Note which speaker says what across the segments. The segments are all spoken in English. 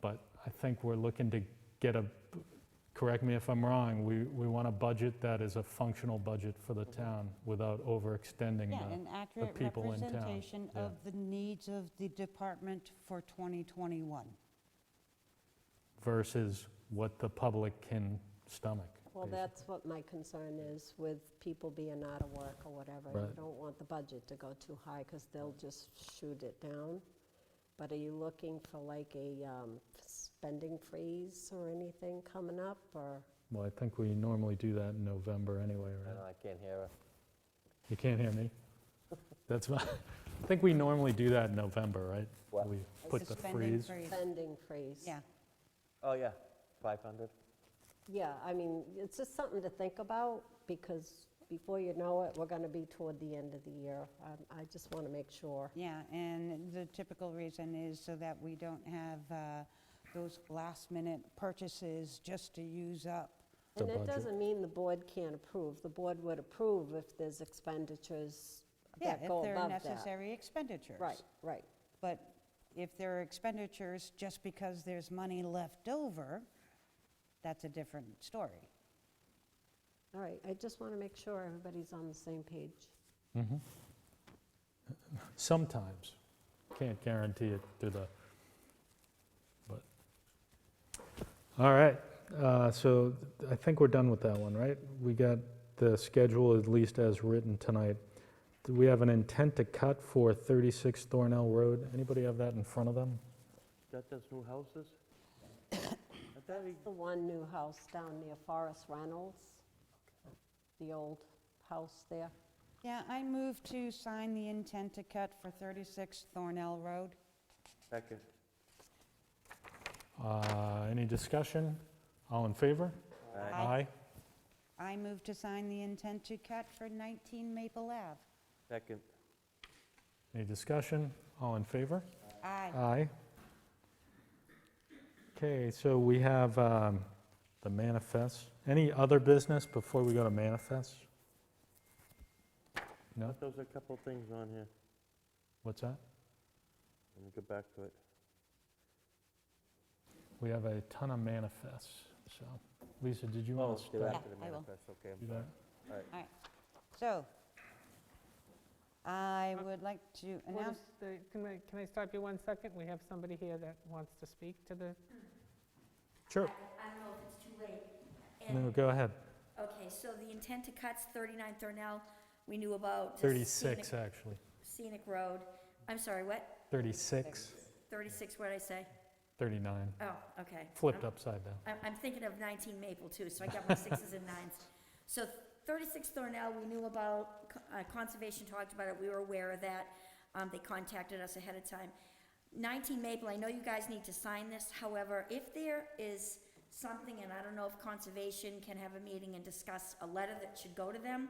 Speaker 1: but I think we're looking to get a, correct me if I'm wrong, we, we want a budget that is a functional budget for the town without overextending
Speaker 2: Mm-hmm. Yeah, an
Speaker 1: the,
Speaker 2: accurate
Speaker 1: people in town,
Speaker 2: representation
Speaker 1: yeah.
Speaker 2: of the needs of the department for 2021.
Speaker 1: versus what the public can stomach.
Speaker 3: Well,
Speaker 1: basically.
Speaker 3: that's what my concern is with people being out of work or whatever. You
Speaker 1: Right.
Speaker 3: don't want the budget to go too high because they'll just shoot it down. But are you looking for like a um, spending freeze or anything coming up or?
Speaker 1: Well, I think we normally do that in November anyway,
Speaker 4: I don't know,
Speaker 1: right?
Speaker 4: I can't hear her.
Speaker 1: You can't hear me? That's my, I think we normally do that in November, right?
Speaker 4: What?
Speaker 1: We put the
Speaker 2: Suspending
Speaker 1: freeze.
Speaker 3: Spending freeze.
Speaker 2: Yeah,
Speaker 4: Oh, yeah, 500.
Speaker 3: Yeah, I mean, it's just something to think about because before you know it, we're going to be toward the end of the year. Um, I just want to make sure.
Speaker 2: yeah, and the typical reason is so that we don't have uh, those last-minute purchases just to use up.
Speaker 1: the
Speaker 3: And that
Speaker 1: budget.
Speaker 3: doesn't mean the board can't approve. The board would approve if there's expenditures
Speaker 2: Yeah,
Speaker 3: that go above
Speaker 2: If they're
Speaker 3: that.
Speaker 2: necessary expenditures.
Speaker 3: Right, right.
Speaker 2: But if there are expenditures just because there's money left over, that's a different story.
Speaker 3: All right, I just want to make sure everybody's on the same page.
Speaker 1: Mhm. Sometimes, can't guarantee it through the, but, all right, uh, so I think we're done with that one, right? We got the schedule at least as written tonight. Do we have an intent to cut for 36 Thornell Road? Anybody have that in front of them?
Speaker 4: That does new houses? I thought he-
Speaker 3: The one new house down near Forest Reynolds, the old house there.
Speaker 2: Yeah, I move to sign the intent to cut for 36 Thornell Road.
Speaker 4: Second.
Speaker 1: Uh, Any discussion? All in favor?
Speaker 4: Aye.
Speaker 2: Aye. I move to sign the intent to cut for 19 Maple Ave.
Speaker 4: Second.
Speaker 1: Any discussion? All in favor?
Speaker 2: Aye.
Speaker 1: Aye. Okay, so we have um, the manifests. Any other business before we go to manifests? No?
Speaker 4: Thought there was a couple things on here.
Speaker 1: What's that?
Speaker 4: Let me go back to it.
Speaker 1: We have a ton of manifests, so. Lisa, did you
Speaker 4: Oh,
Speaker 1: want to
Speaker 4: they're
Speaker 1: start?
Speaker 4: after the
Speaker 2: Yeah, I will.
Speaker 4: manifest, okay. I'm
Speaker 1: Do
Speaker 4: sorry.
Speaker 1: that?
Speaker 2: So, I would like to
Speaker 5: Well,
Speaker 2: announce,
Speaker 5: just, uh, Can I, can I stop you one second? We have somebody here that wants to speak to the,
Speaker 1: Sure.
Speaker 6: I don't know if it's too late.
Speaker 1: No,
Speaker 6: And-
Speaker 1: go ahead.
Speaker 6: Okay, so the intent to cut's 39 Thornell, we knew about. the
Speaker 1: 36,
Speaker 6: scenic-
Speaker 1: actually.
Speaker 6: Scenic Road. I'm sorry, what?
Speaker 1: 36,
Speaker 6: 36, what did I say?
Speaker 1: 39,
Speaker 6: Oh, okay.
Speaker 1: flipped
Speaker 6: I'm-
Speaker 1: upside down.
Speaker 6: I'm, I'm thinking of 19 Maple too, so I got my sixes and nines. So 36 Thornell, we knew about, uh, Conservation talked about it, we were aware of that. Um, They contacted us ahead of time. 19 Maple, I know you guys need to sign this, however, if there is something, and I don't know if Conservation can have a meeting and discuss a letter that should go to them,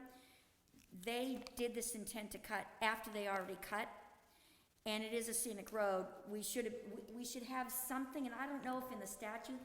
Speaker 6: they did this intent to cut after they already cut, and it is a scenic road, we should, we- we should have something, and I don't know if in the statute,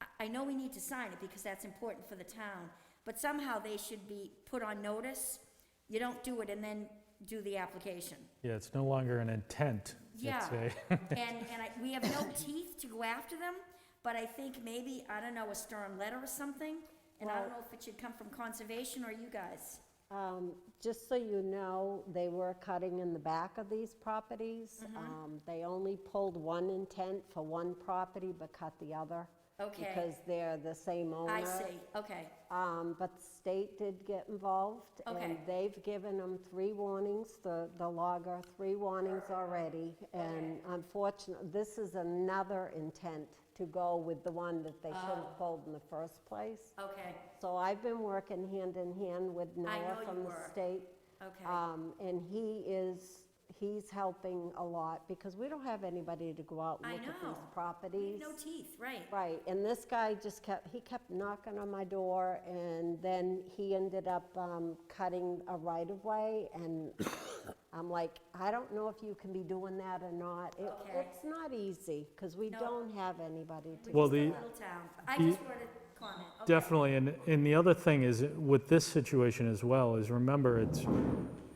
Speaker 6: I- I know we need to sign it because that's important for the town, but somehow they should be put on notice. You don't do it and then do the application.
Speaker 1: Yeah, it's no longer an intent.
Speaker 6: Yeah.
Speaker 1: It's a,
Speaker 6: And, and I, we have no teeth to go after them, but I think maybe, I don't know, a stern letter or something, and I don't know if it should come from conservation or you guys.
Speaker 3: Um, Just so you know, they were cutting in the back of these properties.
Speaker 2: Mm-hmm.
Speaker 3: Um, They only pulled one intent for one property but cut the other.
Speaker 6: Okay.
Speaker 3: Because they're the same owner.
Speaker 6: I see, okay,
Speaker 3: Um, But the state did get involved. And
Speaker 6: Okay.
Speaker 3: they've given them three warnings, the the logger, three warnings already. And unfortunately, this is another intent to go with the one that they should
Speaker 6: Oh.
Speaker 3: have pulled in the first place.
Speaker 6: okay,
Speaker 3: So I've been working hand in hand with
Speaker 6: know
Speaker 3: Noah
Speaker 6: you
Speaker 3: from the
Speaker 6: were.
Speaker 3: state.
Speaker 6: okay,
Speaker 3: Um, and he is, he's helping a lot because we don't have anybody to go out and
Speaker 6: I
Speaker 3: look at
Speaker 6: know.
Speaker 3: these properties.
Speaker 6: no teeth, right,
Speaker 3: Right, and this guy just kept, he kept knocking on my door and then he ended up, um, cutting a right of way and I'm like, I don't know if you can be doing that or not. It-
Speaker 6: Okay.
Speaker 3: It's not easy because we
Speaker 6: No.
Speaker 3: don't have anybody to.
Speaker 1: well,
Speaker 6: Just a
Speaker 1: the,
Speaker 6: little town. I
Speaker 1: the-
Speaker 6: just wanted to comment, okay.
Speaker 1: Definitely, and, and the other thing is, with this situation as well, is remember, it's,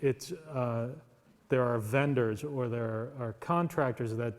Speaker 1: it's, uh, there are vendors or there are contractors that